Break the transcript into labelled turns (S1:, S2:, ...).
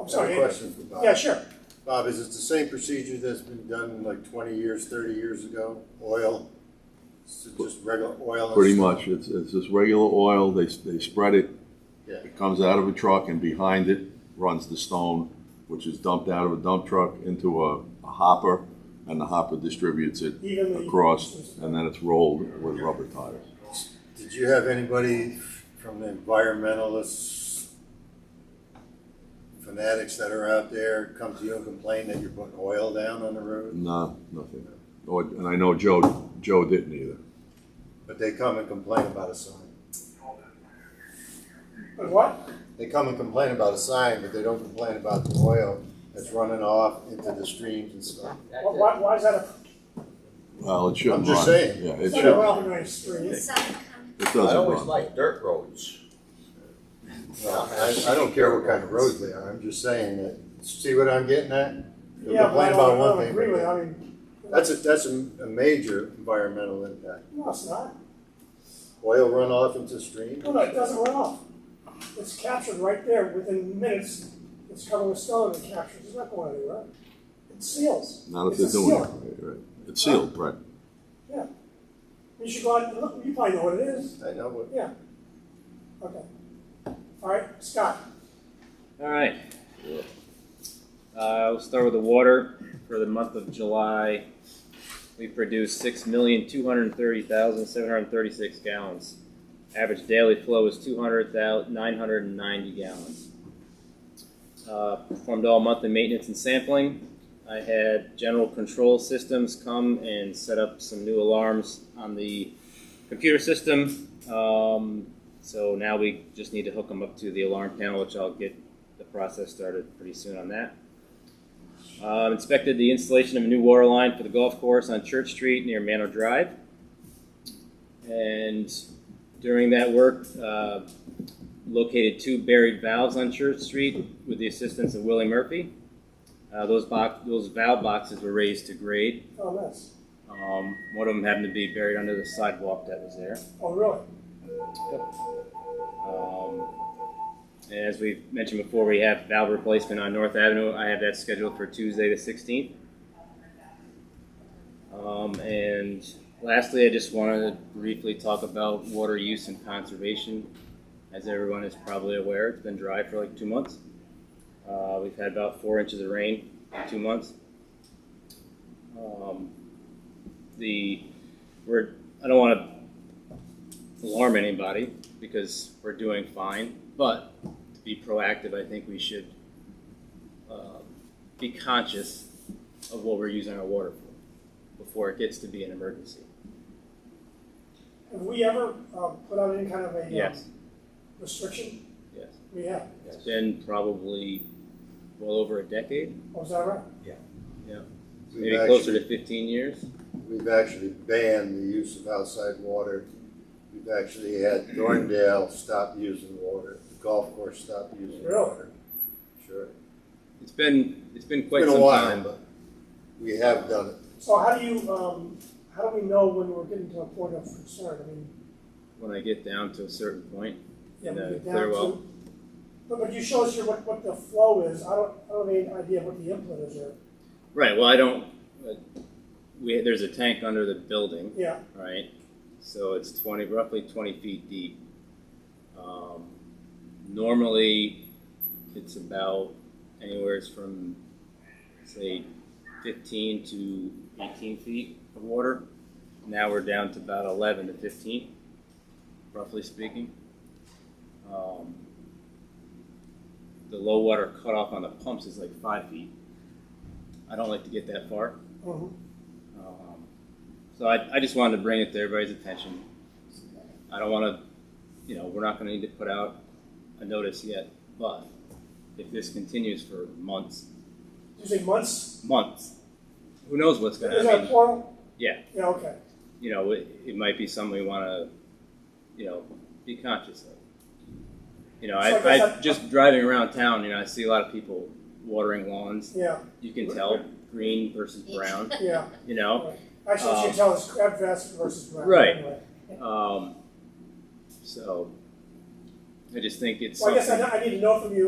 S1: I
S2: I'm
S1: have a
S2: sorry.
S1: question for Bob.
S2: Yeah, sure.
S1: Bob, is it the same procedure that's been done like twenty years, thirty years ago? Oil, It's just regular oil? and
S3: Pretty
S1: stuff?
S3: much, it's, it's this regular oil, they, they spread it,
S1: Yeah,
S3: it comes out of a truck and behind it runs the stone, which is dumped out of a dump truck into a a hopper, and the hopper distributes it
S2: Evenly
S3: across, and then it's rolled with rubber tires.
S1: did you have anybody from the environmentalists, fanatics that are out there come to you and complain that you're putting oil down on the road?
S3: No, nothing. Or- And I know Joe, Joe didn't either.
S1: But they come and complain about a sign.
S2: But what?
S1: They come and complain about a sign, but they don't complain about the oil that's running off into the streams and stuff.
S2: Why- Why, why is that a?
S3: Well, it shouldn't
S1: I'm
S3: run.
S1: just saying.
S3: Yeah, it
S2: It's not
S3: should,
S2: a
S3: it
S2: well-known street.
S4: I
S3: doesn't
S4: always
S3: run.
S4: like dirt roads.
S1: Well, I, I don't care what kind of roads they are, I'm just saying that, see what I'm getting at? You'll
S2: Yeah, but I
S1: complain
S2: don't, I
S1: about one
S2: don't
S1: thing,
S2: agree
S1: but-
S2: with, it. I mean,
S1: That's a, that's a, a major environmental impact.
S2: no, it's not.
S1: Oil runoff into stream,
S2: No, no, it doesn't run off. It's captured right there within minutes. It's covered with stone and captures. It's not going anywhere. It seals.
S3: Not if
S2: It's a
S3: they're doing
S2: seal.
S3: it. right. It's sealed, right.
S2: You should go out and look. You probably know what it is.
S1: I know, what
S2: Yeah. Okay. All right, Scott.
S5: All right. Uh, we'll start with the water. For the month of July, we produced six million two hundred thirty thousand seven hundred thirty-six gallons. Average daily flow is two hundred thousand nine hundred and ninety gallons. Uh, performed all monthly maintenance and sampling. I had general control systems come and set up some new alarms on the computer system. Um, so now we just need to hook them up to the alarm panel, which I'll get the process started pretty soon on that. Um, inspected the installation of a new water line for the golf course on Church Street near Manor Drive. And during that work, uh, located two buried valves on Church Street with the assistance of Willie Murphy. Uh, those, box, those valve boxes were raised to grade.
S2: Oh, nice.
S5: Um, one of them happened to be buried under the sidewalk that was there.
S2: Oh, really?
S5: Um, and as we mentioned before, we have valve replacement on North Avenue. I have that scheduled for Tuesday, the 16th. Um, and lastly, I just wanted to briefly talk about water use and conservation. As everyone is probably aware, it's been dry for like two months. Uh, we've had about four inches of rain in two months. Um, the we're I don't want to alarm anybody, because we're doing fine. But to be proactive, I think we should uh, be conscious of what we're using our water for before it gets to be an emergency.
S2: Have we ever um, put out any kind of a um,
S5: Yes,
S2: restriction?
S5: yes.
S2: We have.
S5: It's been probably well over a decade,
S2: Oh, is that right?
S1: we've
S5: maybe closer
S1: actually,
S5: to 15 years.
S1: we've actually banned the use of outside water. We've actually had Dorndale stop using water, the golf course stop using
S2: Really?
S1: water. Sure.
S5: It's been it's been quite
S1: Been a
S5: some
S1: while,
S5: time.
S1: but we have done it.
S2: So how do you, um, how do we know when we're getting to a point of concern? I mean,
S5: When I get down to a certain point,
S2: yeah,
S5: And,
S2: we
S5: uh,
S2: get down
S5: Clearwell.
S2: to. But, but you show us your, what, what the flow is. I don't, I don't have any idea what the input is there.
S5: right? Well, I don't. Uh, we there's a tank under the building.
S2: Yeah,
S5: right? So it's twenty, roughly twenty feet deep. Um, normally, it's about anywhere from, say, fifteen to eighteen feet of water. Now we're down to about eleven to fifteen, roughly speaking. Um, the low water cutoff on the pumps is like five feet. I don't like to get that far.
S2: mhm.
S5: Um, So I, I just wanted to bring it to everybody's attention. I don't wanna, you know, we're not gonna need to put out a notice yet, but if this continues for months,
S2: You say months?
S5: months, who knows what's gonna
S2: Is that
S5: happen?
S2: plural?
S5: Yeah.
S2: Yeah, okay.
S5: You know, it, it might be something we wanna, you know, be conscious of. You know,
S2: So I guess
S5: I, I,
S2: I-
S5: just driving around town, you know, I see a lot of people watering lawns.
S2: Yeah,
S5: You can tell green versus brown,
S2: yeah.
S5: you know?
S2: Actually, what you
S5: Um,
S2: tell us crab vest versus brown.
S5: Right.
S2: anyway.
S5: Um, so I just think it's
S2: Well, I guess
S5: something-
S2: I, I need to know from you